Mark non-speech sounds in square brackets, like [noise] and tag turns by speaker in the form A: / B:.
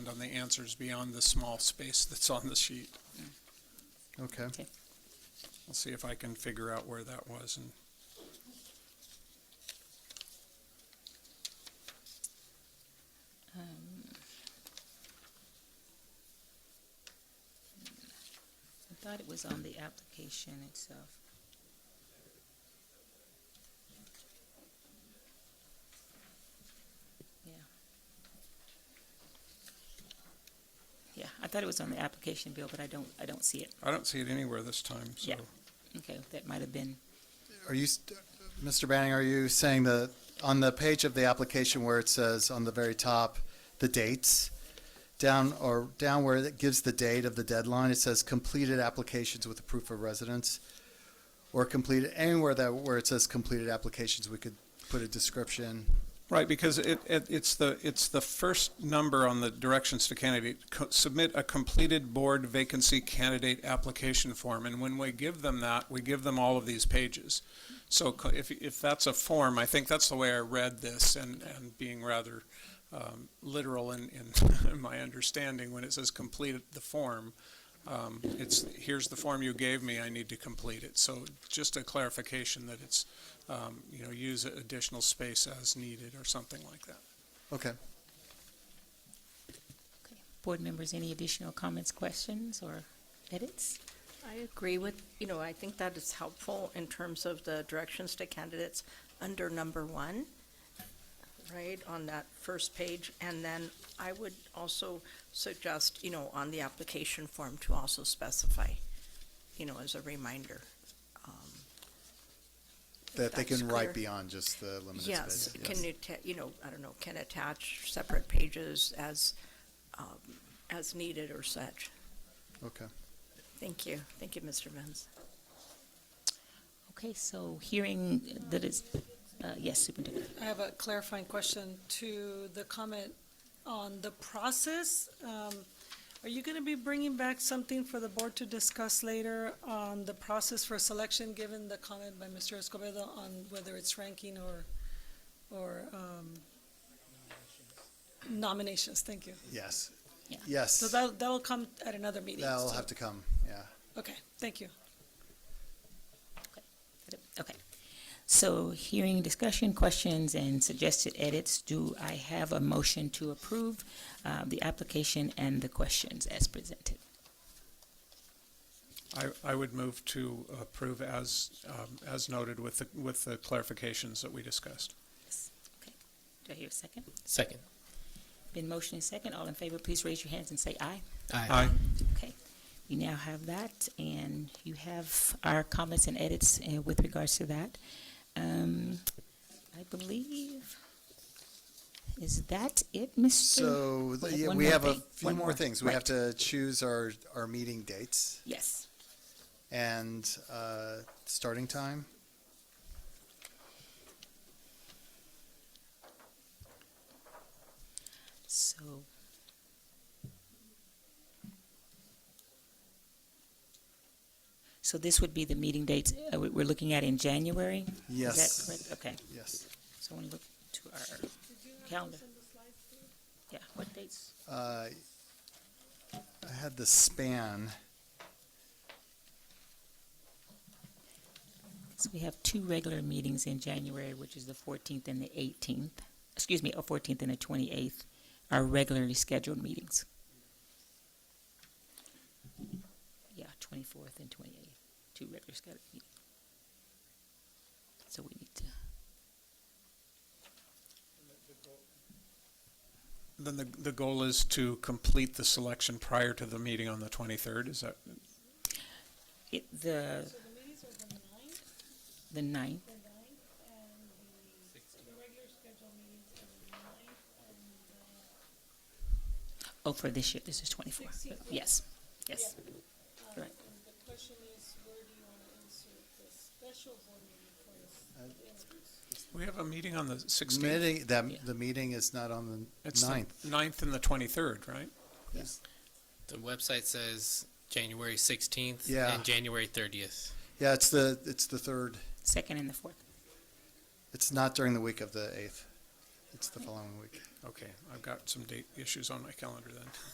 A: on the answers beyond the small space that's on the sheet.
B: Okay.
A: I'll see if I can figure out where that was and
C: I thought it was on the application itself. Yeah. Yeah, I thought it was on the application, Bill, but I don't, I don't see it.
A: I don't see it anywhere this time, so.
C: Yeah. Okay, that might have been,
B: Are you, st- Mr. Banning, are you saying that on the page of the application where it says on the very top, the dates, down or down where it gives the date of the deadline, it says completed applications with a proof of residence? Or completed, anywhere that, where it says completed applications, we could put a description?
A: Right, because it, it, it's the, it's the first number on the directions to candidate. Co- Submit a completed board vacancy candidate application form, and when we give them that, we give them all of these pages. So co- if, if that's a form, I think that's the way I read this and, and being rather, um, literal in, in [laughs] my understanding, when it says complete the form, um, it's, here's the form you gave me, I need to complete it. So just a clarification that it's um, you know, use additional space as needed or something like that.
B: Okay.
C: board members, any additional comments, questions, or edits?
D: I agree with, you know, I think that is helpful in terms of the directions to candidates under number one, right, on that first page. And then I would also suggest, you know, on the application form to also specify, you know, as a reminder. um,
B: That they
D: That's
B: can write
D: clear.
B: beyond just the limited
D: Yes,
B: space?
D: can you, ta- you know, I don't know, can attach separate pages as, um, as needed or such.
B: Okay.
D: Thank you. Thank you, Mr. Venz.
C: Okay, so hearing that is, uh, yes, Superintendent.
E: I have a clarifying question to the comment on the process. Um, Are you going to be bringing back something for the board to discuss later on the process for selection, given the comment by Mr. Escobedo on whether it's ranking or, or um, nominations? Thank you.
B: Yes.
C: Yeah.
B: Yes.
E: So that, that'll come at another meeting.
B: That'll
E: so-
B: have to come, yeah.
E: Okay, thank you.
C: Okay. So hearing discussion, questions, and suggested edits, do I have a motion to approve uh, the application and the questions as presented?
A: I, I would move to approve as, um, as noted with the, with the clarifications that we discussed.
C: Do I hear a second?
F: Second.
C: Been motion and second. All in favor, please raise your hands and say aye.
A: Aye.
C: Okay. We now have that, and you have our comments and edits uh, with regards to that. Um, I believe, is that it, Mr.?
B: So,
C: we
B: the-
C: have
B: yeah,
C: one
B: we
C: more
B: have a
C: thing.
B: few
C: One
B: more
C: more.
B: things. We have
C: Right.
B: to choose our, our meeting dates
C: Yes.
B: and uh, starting time.
C: So. So this would be the meeting dates uh, we- we're looking at in January? Is
B: Yes.
C: that correct? Okay,
B: Yes.
C: so I want to look to our calendar. Yeah, what dates?
B: Uh, I had the span.
C: So we have two regular meetings in January, which is the 14th and the 18th, excuse me, a 14th and the 28th, are regularly scheduled meetings. Yeah, 24th and 28th, two regular scheduled meetings. So we need to,
A: Then the, the goal is to complete the selection prior to the meeting on the 23rd, is that?
C: it, the,
E: So the meetings are the ninth,
C: the 9th,
E: the ninth, and the regular scheduled meetings are the ninth and the
C: oh, for this year, this is 24.
E: 16th.
C: Yes, yes.
E: Um,
C: Right.
E: And the question is, where do you want to insert the special board meeting for this?
A: We have a meeting on the 16th.
B: Meeting,
C: Yeah.
B: that, the meeting is not on
A: It's
B: the
A: the
B: ninth.
A: 9th and the 23rd, right?
F: The website says January 16th
B: Yeah.
F: and January 30th.
B: Yeah, it's the, it's the third.
C: Second and the 4th.
B: It's not during the week of the eighth. It's the following week.
A: Okay, I've got some date issues on my calendar then.